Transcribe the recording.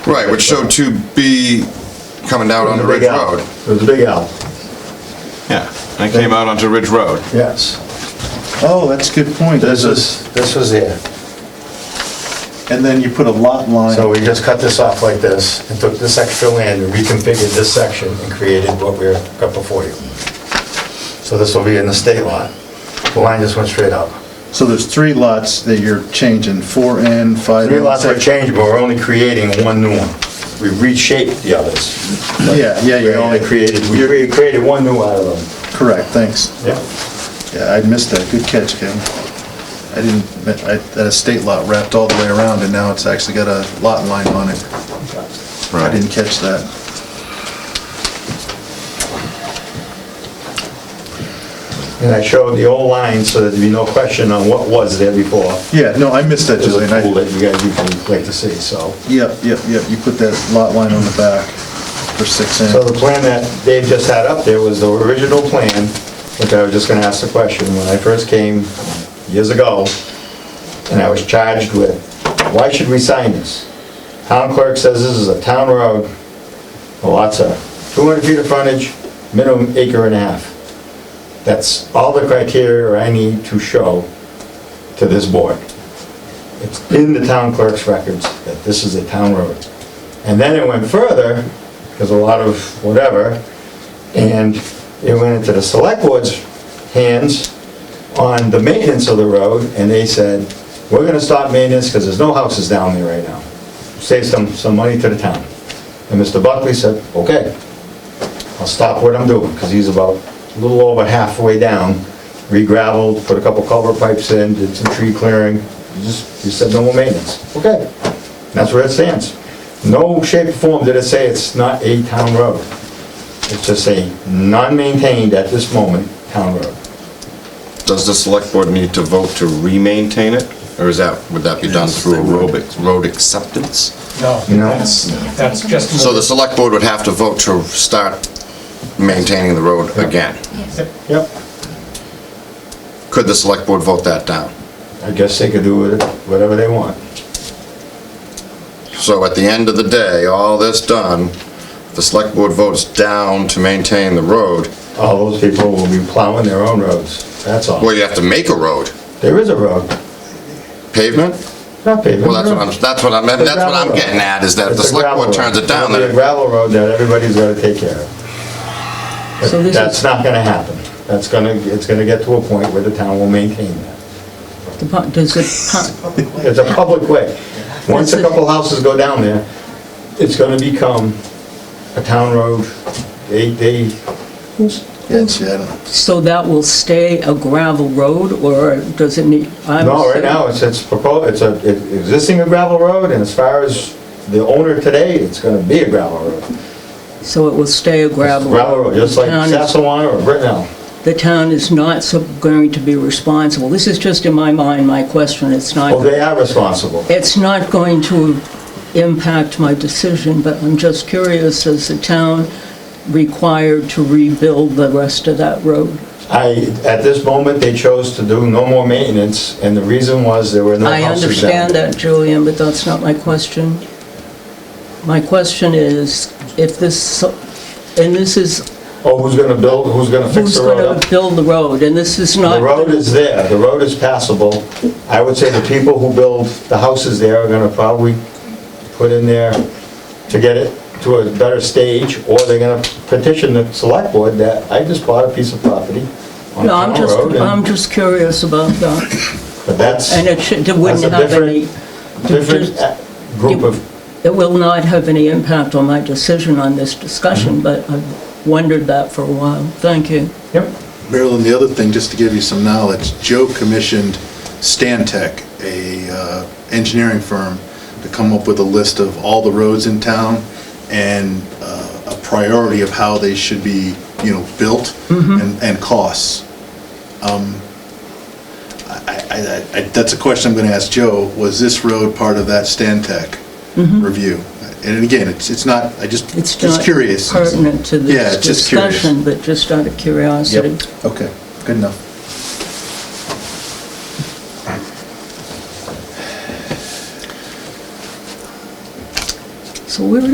Right, which showed 2B coming down onto Ridge Big L. Road. It was a big L, Yeah, and it came out onto Ridge Road. yes. Oh, that's a good point. This is, this was here. And then you put a lot line. So we just cut this off like this and took this extra land and reconfigured this section and created what we're, got before you. So this will be in the state line. The line just went straight up. So there's three lots that you're changing, four N, five N. Three lots are changed, but we're only creating one new one. We reshaped the others. Yeah, yeah, We yeah. only yeah. created, we re- created one new out of them. Correct, thanks. Yeah. Yeah, I missed that. Good catch, Kevin. I didn't, I, that estate lot wrapped all the way around and now it's actually got a lot line on it. I didn't catch that. And I showed the old line so that there'd be no question on what was there before. Yeah, no, I missed that, There's a Julian. tool I- that you guys, you can click to see, so. Yep, yep, yep. You put that lot line on the back for six So N. the plan that Dave just had up there was the original plan, which I was just gonna ask the question, when I first came years ago, and I was charged with, why should we sign this? Town clerk says this is a town road, the lots are 200 feet of frontage, minimum acre and a half. That's all the criteria I need to show to this board. It's in the town clerk's records that this is a town road. And then it went further, because a lot of whatever, and it went into the select board's hands on the maintenance of the road, and they said, we're gonna stop maintenance because there's no houses down there right now. Save some, some money to the town. And Mr. Buckley said, okay, I'll stop what I'm doing, because he's about a little over halfway down, re-gravelled, put a couple culvert pipes in, did some tree clearing, He just, he said no more maintenance. Okay, that's where it stands. No shape or form did it say it's not a town road. It's just a non-maintained at this moment town road. Does the select board need to vote to remaintain it? Or is that, would that be done through a road, ac- road acceptance? No, No. that's, that's just. So the select board would have to vote to start maintaining the road again. Yep. Could the select board vote that down? I guess they could do with it whatever they want. So at the end of the day, all this done, the select board votes down to maintain the road, All those people will be plowing their own roads, that's all. well, you have to make a road. There is a road, Pavement? not paved. Well, that's what I'm, that's what I'm, that's what I'm getting at, is that if the It's a select board gravel turns road. it down, It'll be a then, gravel road that everybody's gotta take care of. So But this That's is, not gonna happen. That's gonna, it's gonna get to a point where the town will maintain that. the pu- does the, pu- It's a public way. Once a couple houses go down there, it's gonna become a town road. They, they, Yes, yeah, I don't- so that will stay a gravel road, or does it need? I'm no, right assuming- now, it's, it's proposed, it's a, it's existing a gravel road, and as far as the owner today, it's gonna be a gravel road. So it will stay a gravel? Gravel road, just like Town is- Sassawana or Brittenell. The town is not so- going to be responsible. This is just in my mind, my question, it's Well, not, they are responsible. it's not going to impact my decision, but I'm just curious, is the town required to rebuild the rest of that road? I, at this moment, they chose to do no more maintenance, and the reason was there were no I houses down. understand that, Julian, but that's not my question. My question is, if this, and this is, Oh, who's gonna build, who's gonna fix who's the road up? going to build the road? And this is not... The road is there, the road is passable. I would say the people who build the houses there are gonna probably put in there to get it to a better stage, or they're gonna petition the select board that I just bought a piece of property on No, I'm town just, road. I'm and- just curious about that. But that's And a it should, it wouldn't That's a have any, different just- uh, group of, it will not have any impact on my decision on this Mm-hmm. discussion, but I've wondered that for a while. Thank you. yep, Marilyn, the other thing, just to give you some knowledge, Joe commissioned Stantec, a uh, engineering firm, to come up with a list of all the roads in town and uh, a priority of how they should be, you know, built Mm-hmm. and and costs. Um, I- I- I- I- That's a question I'm going to ask Joe, was this road part of that Stantec review? And again, it's it's not, I just, Mm-hmm. It's just not curious. pertinent to Yeah, this it's just curious. discussion, but just out of curiosity. Okay, good enough. So where